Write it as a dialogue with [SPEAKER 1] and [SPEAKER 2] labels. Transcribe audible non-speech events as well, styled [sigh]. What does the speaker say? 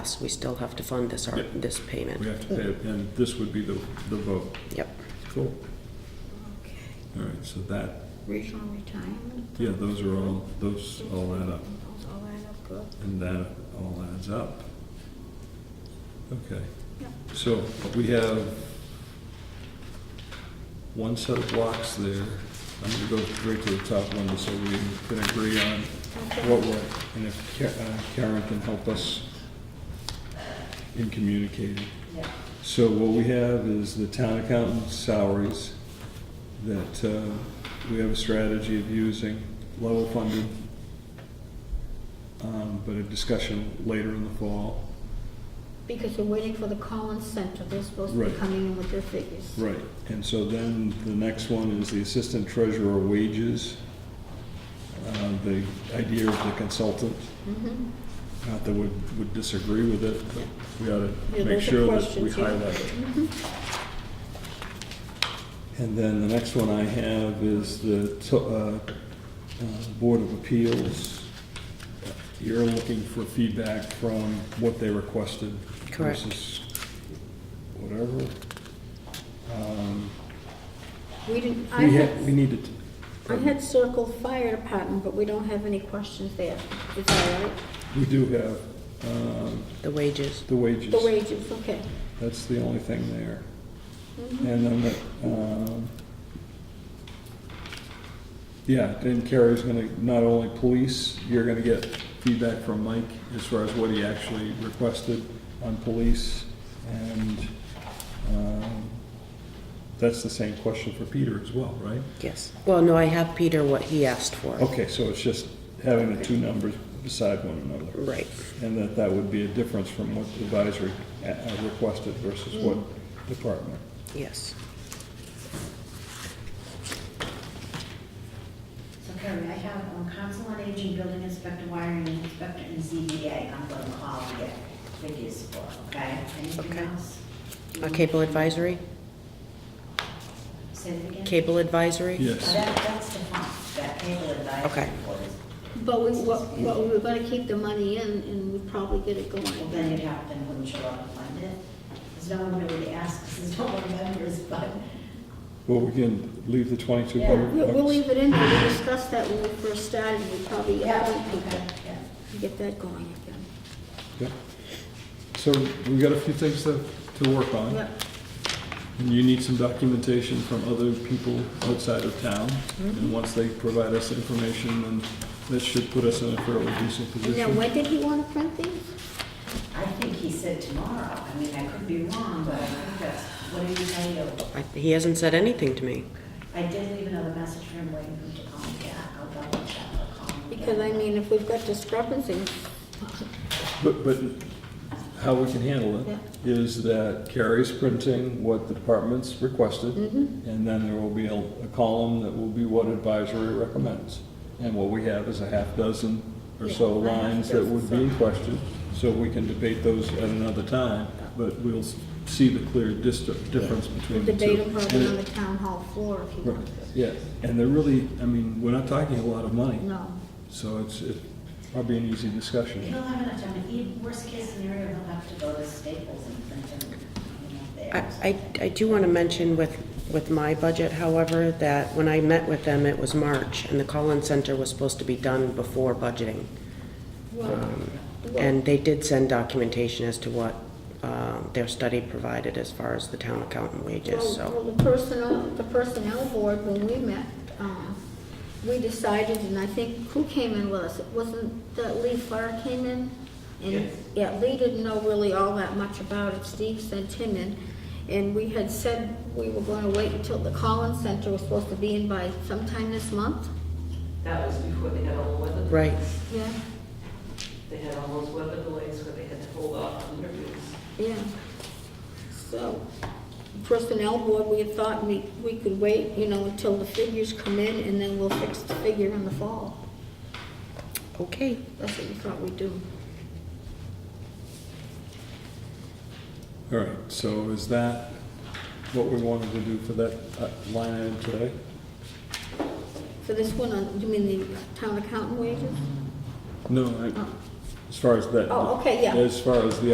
[SPEAKER 1] So we still have to fund this, ar-
[SPEAKER 2] Yep.
[SPEAKER 1] this
[SPEAKER 2] We
[SPEAKER 1] payment. Mm,
[SPEAKER 2] have to pay, it, and this would be the, the vote.
[SPEAKER 1] Yep.
[SPEAKER 2] Cool.
[SPEAKER 3] Okay.
[SPEAKER 2] All right, so that,
[SPEAKER 3] Regional retirement?
[SPEAKER 2] yeah, those are all, those all add up,
[SPEAKER 3] Those all add up, good.
[SPEAKER 2] and that all adds up. Okay.
[SPEAKER 3] Yep.
[SPEAKER 2] So we have one set of blocks there. I'm gonna go right to the top one, so we can agree on what
[SPEAKER 3] Okay.
[SPEAKER 2] we're, and if Ka- uh, Karen can help us in communicating. So what we have is the town accountant's salaries, that uh, we have a strategy of using level funded, um, but a discussion later in the fall.
[SPEAKER 3] Because we're waiting for the Collins Center, they're supposed to be
[SPEAKER 2] Right.
[SPEAKER 3] coming in with their figures.
[SPEAKER 2] Right, and so then the next one is the assistant treasurer wages. Uh, The idea of the consultant,
[SPEAKER 3] Mhm.
[SPEAKER 2] not that we would disagree with it, but we ought to
[SPEAKER 3] Yeah,
[SPEAKER 2] make
[SPEAKER 3] those are
[SPEAKER 2] sure that we
[SPEAKER 3] questions, yeah.
[SPEAKER 2] highlight it.
[SPEAKER 3] Mm-hmm.
[SPEAKER 2] And then the next one I have is the to- uh, uh, Board of Appeals. You're looking for feedback from what they requested
[SPEAKER 1] Correct.
[SPEAKER 2] versus whatever. Um,
[SPEAKER 3] We didn't, I
[SPEAKER 2] we had, we
[SPEAKER 3] had,
[SPEAKER 2] needed to.
[SPEAKER 3] I had circled fire department, but we don't have any questions there. Is that right?
[SPEAKER 2] We do have, um,
[SPEAKER 1] The wages.
[SPEAKER 2] the wages.
[SPEAKER 3] The wages, okay.
[SPEAKER 2] That's the only thing there.
[SPEAKER 3] Mhm.
[SPEAKER 2] And then, the, um, yeah, then Carrie's gonna, not only police, you're gonna get feedback from Mike as far as what he actually requested on police. And, um, that's the same question for Peter as well, right?
[SPEAKER 1] Yes. Well, no, I have Peter what he asked for.
[SPEAKER 2] Okay, so it's just having the two numbers beside one another.
[SPEAKER 1] Right.
[SPEAKER 2] And that that would be a difference from what the advisory uh, uh, requested versus what
[SPEAKER 3] Mm.
[SPEAKER 2] department.
[SPEAKER 1] Yes.
[SPEAKER 4] So Carrie, I have um, council on aging, building inspector, wiring inspector, and ZBA. I'm going to call and get figures for, okay? Anything
[SPEAKER 1] Okay.
[SPEAKER 4] else?
[SPEAKER 1] Uh,
[SPEAKER 3] Mm-hmm.
[SPEAKER 1] Cable advisory?
[SPEAKER 4] Say it again?
[SPEAKER 1] Cable advisory?
[SPEAKER 4] Uh,
[SPEAKER 2] Yes,
[SPEAKER 4] That, that's the fund, that cable advisory
[SPEAKER 1] Okay.
[SPEAKER 4] board is,
[SPEAKER 3] But we, what, what, we were gonna keep the money in and we'd probably get it
[SPEAKER 4] well, then
[SPEAKER 3] going.
[SPEAKER 4] you'd have, then wouldn't you want to fund it? Because no one really asks, there's no one members, [laughs] but,
[SPEAKER 2] well, we can leave the twenty-two
[SPEAKER 3] We'll,
[SPEAKER 2] hundred
[SPEAKER 3] we'll
[SPEAKER 2] bucks.
[SPEAKER 3] leave it in there, we discussed that when we first started, we probably
[SPEAKER 4] yeah,
[SPEAKER 3] added people.
[SPEAKER 4] okay, yeah.
[SPEAKER 3] Get that going again.
[SPEAKER 2] Yeah. So we got a few things to, to work on.
[SPEAKER 3] Yep.
[SPEAKER 2] And you need some documentation from other people outside of town.
[SPEAKER 3] Mm-hmm.
[SPEAKER 2] And once they provide us information, then that should put us in a fairly decent
[SPEAKER 3] And now,
[SPEAKER 2] position.
[SPEAKER 3] when did he want to print these?
[SPEAKER 4] I think he said tomorrow, I mean, I could be wrong, but I think that's, what do you say, though?
[SPEAKER 1] I- He hasn't said anything to me.
[SPEAKER 4] I did leave another message for him waiting for him to call me back, I'll double check, I'll call him.
[SPEAKER 3] Because I
[SPEAKER 4] again.
[SPEAKER 3] mean, if we've got discrepancies,
[SPEAKER 2] But, but how we can handle
[SPEAKER 3] Yeah.
[SPEAKER 2] it is that Carrie's printing what the department's requested.
[SPEAKER 3] Mm-hmm.
[SPEAKER 2] And then there will be a a column that will be what advisory recommends. And what we have is a half dozen or so
[SPEAKER 3] Yeah, a half
[SPEAKER 2] lines that would be in
[SPEAKER 3] dozen.
[SPEAKER 2] question, so we can debate those at another time, but we'll s- see the clear dis- difference between the two.
[SPEAKER 3] debate them probably on
[SPEAKER 2] And
[SPEAKER 3] the
[SPEAKER 2] it-
[SPEAKER 3] town hall floor if you
[SPEAKER 2] Right,
[SPEAKER 3] want to.
[SPEAKER 2] yeah, and they're really, I mean, we're not talking a lot of money,
[SPEAKER 3] No.
[SPEAKER 2] so it's, it probably an easy discussion.
[SPEAKER 4] He'll have enough time, he, worst case scenario, he'll have to go to Staples and print them, you know,
[SPEAKER 1] I,
[SPEAKER 4] there.
[SPEAKER 1] I I do want to mention with, with my budget, however, that when I met with them, it was March, and the Collins Center was supposed to be done before budgeting. Um,
[SPEAKER 3] Well,
[SPEAKER 1] And they did send documentation as to what um, their study provided as far as the town accountant wages,
[SPEAKER 3] well, well,
[SPEAKER 1] so.
[SPEAKER 3] the personnel, the personnel board, when we met, um, we decided, and I think, who came in with us? It Wasn't that Lee Farr came in? And, yeah, Lee didn't know really all that much about it. Steve sent him in. And we had said we were going to wait until the Collins Center was supposed to be in by sometime this month.
[SPEAKER 5] That was before they had all the weather.
[SPEAKER 1] Right.
[SPEAKER 5] delays.
[SPEAKER 3] Yeah.
[SPEAKER 5] They had all those weather delays where they had to hold off on interviews.
[SPEAKER 3] Yeah. So, personnel board, we had thought we, we could wait, you know, until the figures come in, and then we'll fix the figure in the fall.
[SPEAKER 1] Okay,
[SPEAKER 3] That's what we thought we'd do.
[SPEAKER 2] All right, so is that what we wanted to do for that uh, line item today?
[SPEAKER 3] For this one, on- you mean the town accountant wages?
[SPEAKER 2] No, I-
[SPEAKER 3] Oh.
[SPEAKER 2] as far as that.
[SPEAKER 3] Oh, okay, yeah.
[SPEAKER 2] As far as the